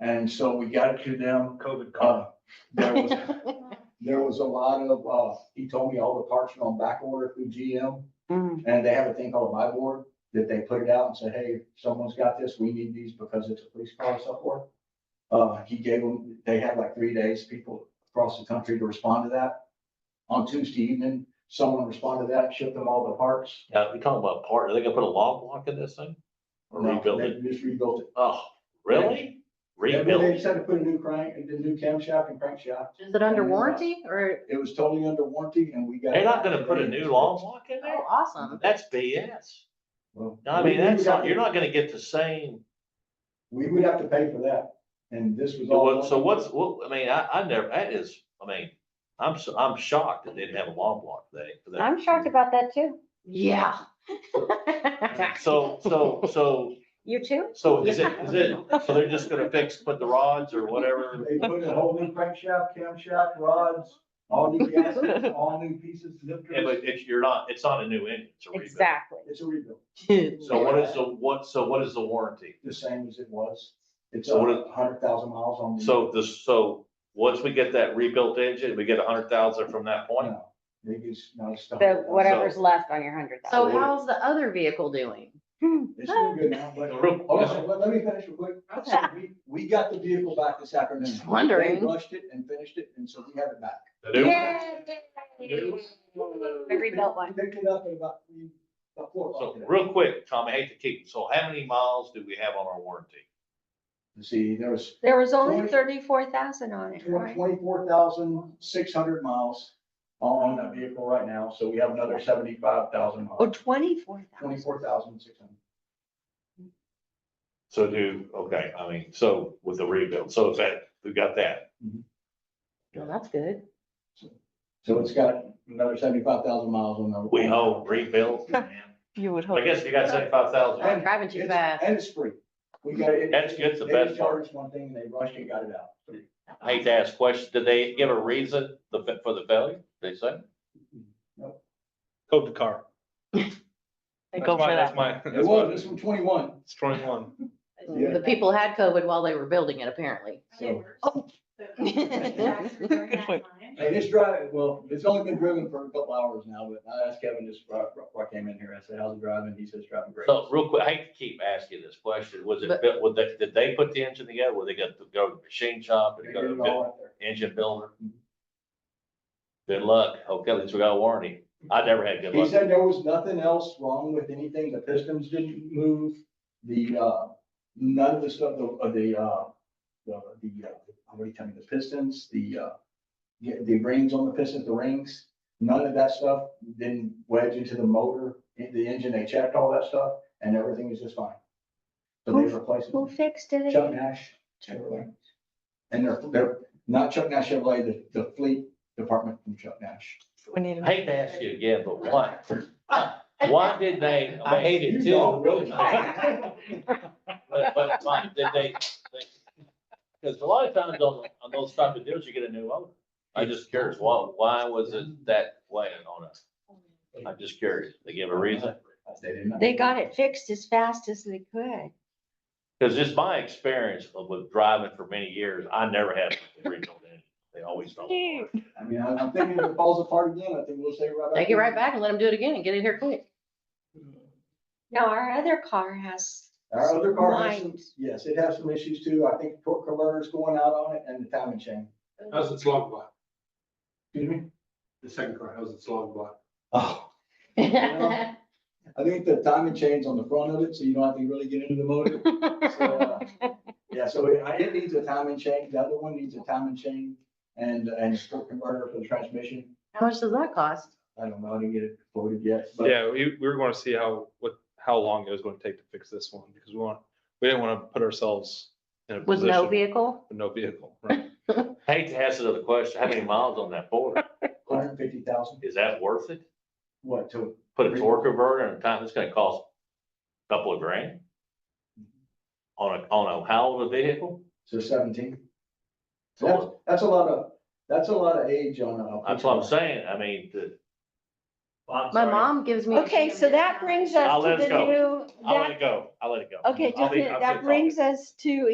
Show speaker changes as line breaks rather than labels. And so we got it to them.
COVID
Oh.
Uh,
call.
there was, there was a lot of, uh, he told me all the parts are on back order through GM.
Mm.
And they have a thing called my board that they put it out and say, hey, someone's got this, we need these because it's a police car and so forth. Uh, he gave them, they had like three days, people across the country to respond to that. On Tuesday evening, someone responded to that, shipped them all the parts.
Yeah, we talking about part, are they gonna put a log block in this thing? Or
No,
rebuild it?
they Just rebuilt it.
Oh, really?
Yeah,
Rebuild
but They
it?
decided to put a new crank, a new camshaft and crankshaft.
Is it
Mm.
under warranty or,
It was totally under warranty and we got.
They're not gonna put a new log block in
oh,
there?
awesome.
That's BS.
Well,
I
we-
mean,
we
that's,
got
not-
the-
you're not gonna get the same,
We would have to pay for that, and this was all.
so what's, what, I mean, I, I never, that is, I mean, I'm, so- I'm shocked that they didn't have a log block today. for that.
I'm shocked about that too.
Yeah.
So, so, so,
You too?
so is it, is it, so they're just gonna fix, put the rods or whatever?
They put a whole new crankshaft, camshaft, rods, all new gaskets, all new pieces,
Yeah, but
lifters,
it's, you're not, it's not a new engine, it's a rebuild.
Exactly.
it's a rebuild,
So what is the, what, so what is the warranty?
the same as it was. It's
So what
a hundred thousand miles on. the-
So this, so, once we get that rebuilt engine, we get a hundred thousand from that point?
No, They just, no, it's. not-
The whatever's left on your hundred
So
thousand.
how's the other vehicle doing?
It's doing good now, but,
Real-
hold on, let, let me finish real quick. So we, we got the vehicle back this afternoon.
Just wondering.
They rushed it and finished it, and so we have it back.
The new one?
Yay! I rebuilt one.
Picked it up at about, three- about four o'clock
So
today.
real quick, Tom, I hate to keep, so how many miles do we have on our warranty?
Let's See, there was
There was
Twenty-
only thirty-four thousand on it, right?
twenty-four thousand, six hundred miles on that vehicle right now, so we have another seventy-five thousand
Oh,
miles,
twenty-four thousand.
twenty-four thousand, six hundred.
So do, okay, I mean, so with the rebuild, so is that, we got that.
Well, that's good.
So it's got another seventy-five thousand miles on the.
We hope rebuild.
You would
I
hope.
guess you got seventy-five thousand.
And
Driving too
it's-
fast.
And it's free. We got it.
That's- that's the
They
best part.
charged one thing, and they rushed and got it out.
I hate to ask questions. Did they give a reason the fa- for the failure? They said?
COVID car.
They
That's
go
my-
for that.
That's my,
It
that's
was,
my,
this one twenty-one,
it's twenty-one.
Yeah.
The people had COVID while they were building it, apparently.
so,
Oh.
Good point.
and it's driving, well, it's only been driven for a couple hours now, but I asked Kevin just, before I- before I came in here, I said, how's it driving? He says, driving great.
So real quick, I hate to keep asking this question. Was it,
But-
built- would they, did they put the engine together? Were they got to go to the machine shop
They
and
did
go to
it
the
all Mm-hmm.
buil-
out there.
engine builder? Good luck. Okay, at least we got a warranty. I never had good
He
luck.
said there was nothing else wrong with anything, the pistons didn't move, the, uh, none of the stuff, the, uh, the, uh, the, the, uh, what are you telling me, the pistons, the, uh, yeah, the rings on the pistons, the rings, none of that stuff didn't wedge into the motor, in the engine, they checked all that stuff, and everything is just fine. So they replaced
Who
it,
fixed it?
Chuck Nash Chevrolet. And they're, they're, not Chuck Nash Chevrolet, the, the fleet department from Chuck Nash.
We need.
I Hate to ask you again, but why? Why did they?
I hate it
You
too.
don't really
But, but, Mike, did they? Because a lot of times on, on those type of deals, you get a new owner. I'm just curious, why, why was it that way on us? I'm just curious. They give a reason?
They did not-
They got it fixed as fast as they could.
Because just my experience of with driving for many years, I never had a rebuilt engine. They always don't. work.
I mean, I'm I'm thinking if it falls apart again, I think we'll say right back.
Take it right back and let them do it again and get it here quick.
No, our other car has,
Our other car has some,
Mind.
yes, it has some issues too. I think torque converter's going out on it and the timing chain.
How's its log block?
Excuse me?
The second car, how's its log block?
Oh, I think the timing chain's on the front of it, so you don't have to really get into the motor. So, uh, Yeah, so it, I- it needs a timing chain. The other one needs a timing chain and, and torque converter for the transmission.
How much does that cost?
I don't know, I didn't get it quoted yet, but
Yeah, we, we were gonna see how, what, how long it was gonna take to fix this one, because we want, we didn't wanna put ourselves in a
With
position.
no vehicle?
With no vehicle, right?
Hate to ask another question. How many miles on that Ford?
hundred and fifty thousand,
Is that worth it?
what, to,
put a torque converter and a time, it's gonna cost a couple of grand. On a, on a how old a vehicle?
to seventeen?
So
That's, that's a lot of, that's a lot of age on uh, a.
That's what I'm saying, I mean, the. I'm
My
sorry.
mom gives me.
Okay, so that brings us
I'll
to
let us
the new,
I'll let
that,
it go, I'll let it go.
okay,
I'll
just,
be-
a minute,
I'll
that
be-
brings us to